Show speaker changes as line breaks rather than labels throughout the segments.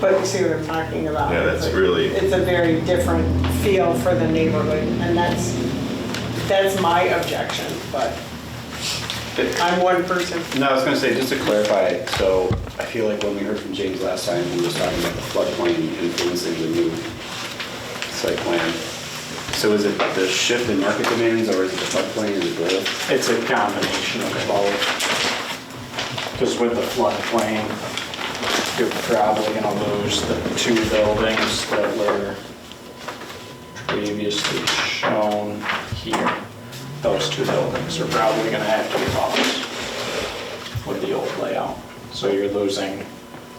but you see what I'm talking about.
Yeah, that's
It's like-
really-
It's a very different feel for the neighborhood, and that's, that's my objection, but I'm one person.
No, I was gonna say, just to clarify, so I feel like when we heard from James last time, he was talking about the floodplain influencing the new site plan. So is it the shift in market demands, or is it the floodplain, is it both?
It's a combination of both. Because with the floodplain, you're probably gonna lose the two buildings that were previously shown here. Those two buildings are probably gonna have to be lost with the old layout. So you're losing.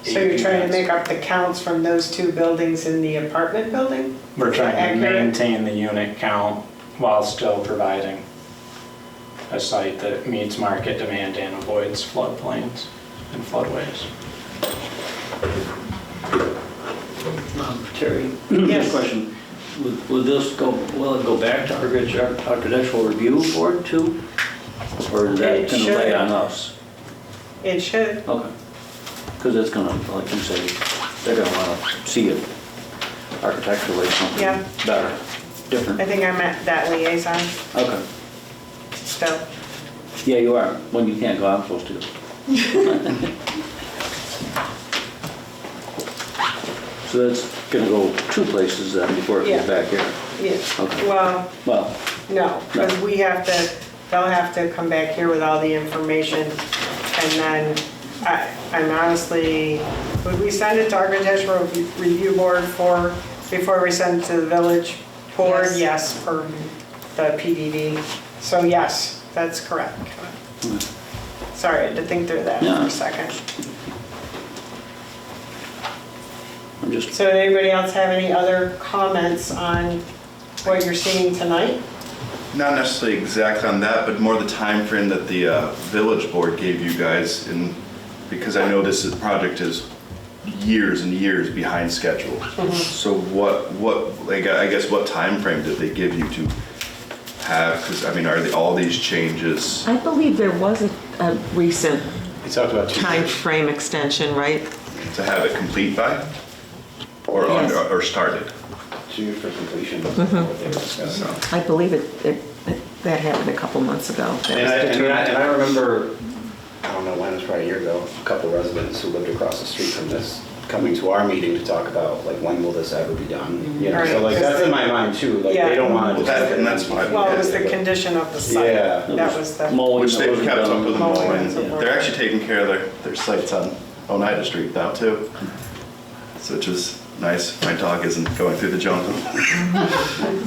So you're trying to
8
make up the counts from those two buildings in the apartment building?
We're trying to
Accurate.
maintain the unit count while still providing a site that meets market demand and avoids floodplains and floodways.
Um, Terry,
Yes.
question. Would- Would this go, will it go back to architect- architectural review board too? Or is
It
that going to
should.
lay on us?
It should.
Okay. Because it's going to, like you say, they're going to want to see it architecturally,
Yeah.
something better,
I
different.
think I'm at that liaison
Okay.
still.
Yeah, you are. When you can't go, I'm supposed to. So that's going to go two places then before it goes
Yeah.
back here.
Yes.
Okay.
Well,
Well,
no, because we have to, they'll have to come back here with all the information. And then I, I'm honestly, would we send it to architectural review board for, before we send it to the village board?
Yes.
Yes, for the PDD. So yes, that's correct. Sorry, I had to think through that for
Yeah.
a second.
I'm just,
So anybody else have any other comments on what you're seeing tonight?
Not necessarily exact on that, but more the time frame that the uh, village board gave you guys, and because I know this is- project is years and years behind schedule. So what, what, like, I guess what time frame did they give you to have? Because, I mean, are they, all these changes?
I believe there was a, a recent
He talked about two.
time frame extension, right?
To have it complete by? Or,
Yes.
under- or started?
Two for completion. that's what they were discussing.
So,
I believe it, it, that happened a couple months ago. That
And I,
was
and I- and
determined.
I remember, I don't know when, it was probably a year ago, a couple residents who lived across the street from this coming to our meeting to talk about, like, when will this ever be done? You know, so
Right,
like,
'cause
that's in
they-
my mind too, like, they don't want to.
Well, that- and that's why-
Well, it was the condition of the site.
Yeah.
That was the.
mowing
Which
that
they've
wasn't
kept
done.
up with the
Mowing
mowing.
and so forth.
They're actually taking care of their, their sites on Oneida Street now too. So which is nice. My dog isn't going through the jungle.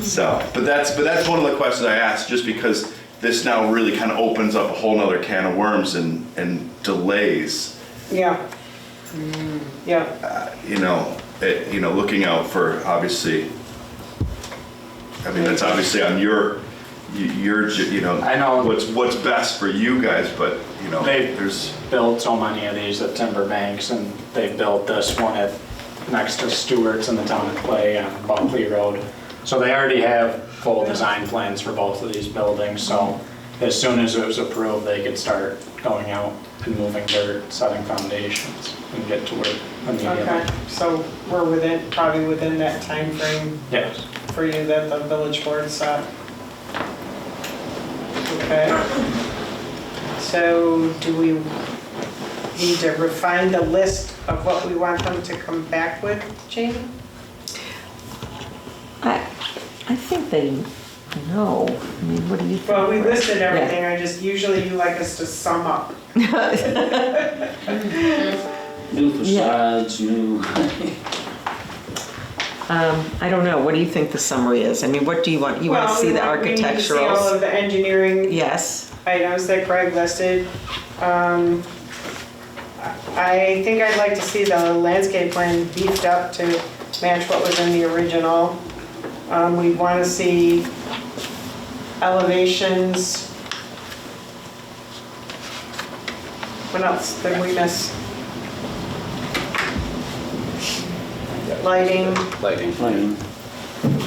So, but that's, but that's one of the questions I asked, just because this now really kind of opens up a whole nother can of worms and, and delays.
Yeah. Yeah,
You know, it, you know, looking out for obviously, I mean, that's obviously on your, y- your, you know.
I know.
What's, what's best for you guys, but you know,
They-
there's.
Built so many of these at timber banks and they built this one at, next to Stewart's in the town of Clay on Buckley Road. So they already have full design plans for both of these buildings, so as soon as it was approved, they could start going out and moving dirt, setting foundations and get to work immediately.
okay, so we're within, probably within that time frame
Yes.
for you that the village board set. Okay. So do we need to refine the list of what we want them to come back with, Jamie?
I, I think they know. I mean, what do you think?
Well, we listed
Yeah.
everything, I just, usually you like us to sum up.
New facades, new,
Um, I don't know. What do you think the summary is? I mean, what do you want? You want to
Well, we
see the
want- we need to see all
architecturals?
of the engineering
Yes.
items that Greg listed. Um, I think I'd like to see the landscape plan beefed up to match what was in the original. Um, We want to see elevations. What else did we miss? Lighting,
Lighting.
plain.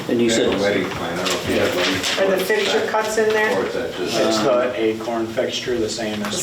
And you said,
plan, I don't know if you have one.
are the fixture cuts in there?
Or is that just? It's the acorn fixture, the same as